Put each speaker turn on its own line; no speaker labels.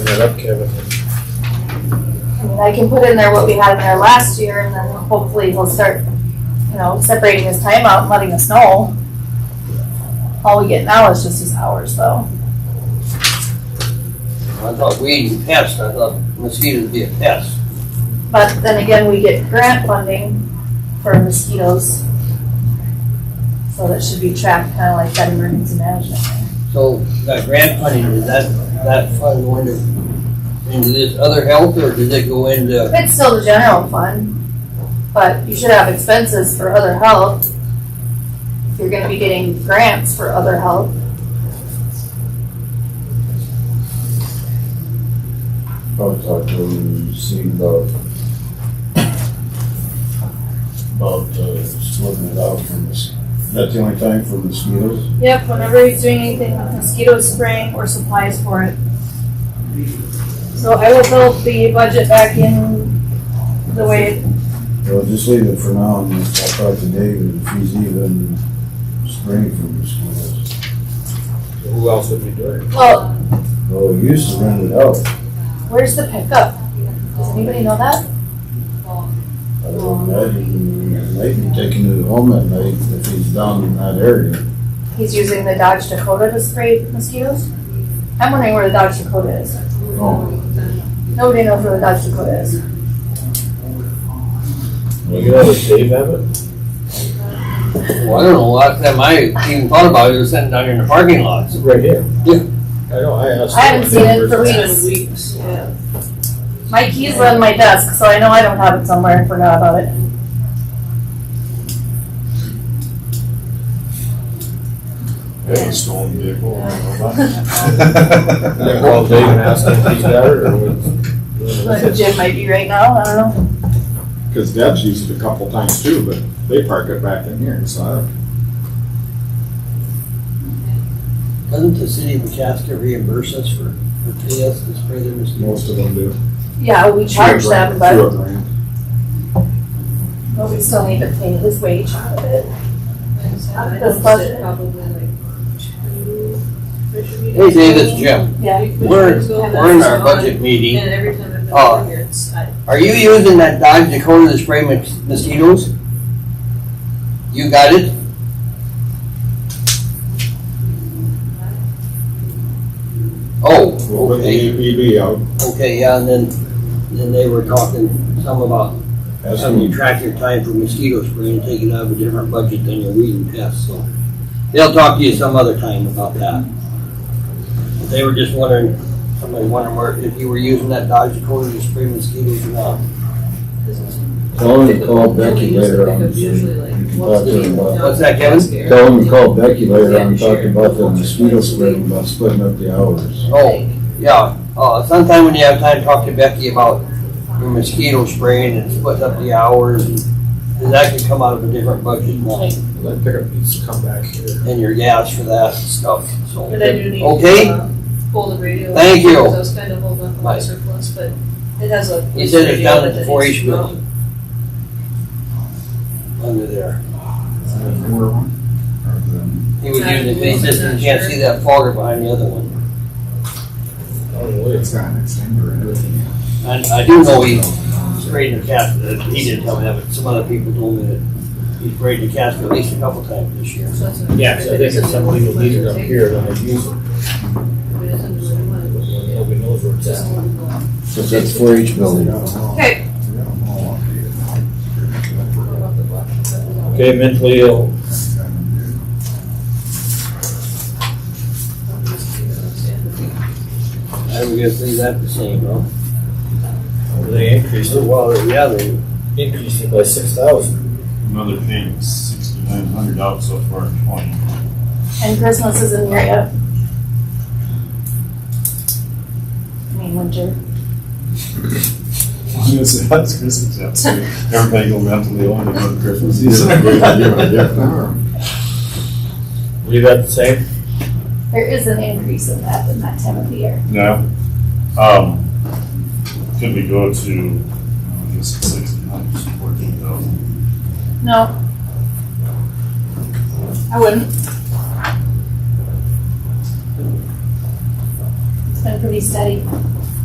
that up, Kevin.
I mean, I can put in there what we had in there last year and then hopefully he'll start, you know, separating his time out and letting us know. All we get now is just his hours though.
I thought weed and pests, I thought mosquitoes would be a pest.
But then again, we get grant funding for mosquitoes. So that should be tracked kind of like that emergency management.
So that grant funding, is that, that fund going to, into this other health or does it go into,
It's still the general fund, but you should have expenses for other help. If you're gonna be getting grants for other help.
I'd like to see about, about uh, splitting it out from this, that's the only time for mosquitoes?
Yep, whenever he's doing anything with mosquito spraying or supplies for it. So I will build the budget back in the way,
Well, just leave it for now, and I'll talk to David, if he's even spraying for mosquitoes.
So Who else would be doing it?
Well,
Well, we used to rent it out.
where's the pickup? Does anybody know that?
I don't imagine, maybe taking it home at night if he's down in that area.
He's using the Dodge Dakota to spray mosquitoes? I'm wondering where the Dodge Dakota is.
Oh,
Nobody knows where the Dodge Dakota is.
You know, does Dave have it?
well, I don't know, last time I even thought about it, it was sitting down here in the parking lots.
It's right here.
Yeah.
I know, I asked.
I haven't seen it for
Well,
weeks. My keys are on my desk, so I know I don't have it somewhere and forgot about it.
It's stolen vehicle. I don't know about it.
I called Dave and asked him if he's got it or
But
what.
Jim might be right now, I don't know.
Cause Deb's used it a couple times too, but they park it back in here, so I don't.
Doesn't the city of Chaska reimburse us for, for pay us to spray their mosquitoes?
Most of them do.
Yeah, we charge them,
Through a
but,
grant.
but we still need to pay his wage out of it.
I
This
noticed
budget.
it probably like two, there should be-
Hey Dave, it's Jim.
Yeah,
We're, we're in our budget meeting.
And every time I've been
Oh.
over here, it's, I,
Are you using that Dodge Dakota to spray mos- mosquitoes? You got it? Oh,
We'll put the
okay.
APB out,
Okay, yeah, and then, then they were talking some about
Ask
how you
him,
track your time for mosquito spray and take it out of a different budget than your weed and pest, so. They'll talk to you some other time about that. But They were just wondering, somebody wondering where, if you were using that Dodge Dakota to spray mosquitoes or not.
because
tell him to call Becky
Usually
later on.
pickups
see if
usually like
you can
once
talk
a
to him
week.
about-
What's that, Kevin?
Tell him to call Becky later on, talking about the mosquito spray, about splitting up the hours.
Oh, yeah, uh, sometime when you have time, talk to Becky about your mosquito spraying and splitting up the hours. and- And that could come out of a different budget line
That pickup needs to come back here.
and your gas for that and stuff, so.
But I do need
Okay.
to, uh, pull the radio.
Thank you.
Because I was kind of holding up on my surplus, but it has a.
He said it's down at
radio
the
that
four
needs
H
to go.
building. Under there. He was using the basis and you can't see that fogger behind the other one.
I don't know,
it's
it's-
got an extender in it.
And I do know he sprayed the cat, uh, he didn't tell me that, but some other people told me that he sprayed the cat at least a couple times this year.
So that's what-
Yeah, so I think if somebody will leave it up here, then I'll use it.
But it doesn't really want to-
Nobody knows where it's
just
at.
one block.
Cause that's four H building.
Okay.
Okay, mentally ill.
I would just leave that the same, no?
They increased it, well,
Well, yeah, they,
they increased it by six thousand.
Another thing, sixty-nine hundred out so far in twenty.
and Christmas is in here yet. I mean, winter.
That's Christmas episode. Everybody go mentally on about Christmas.
Leave that the same?
There is an increase in that in that time of the year.
No. Um, could we go to, I guess, sixty-nine, fourteen thousand?
No. I wouldn't. It's been pretty steady.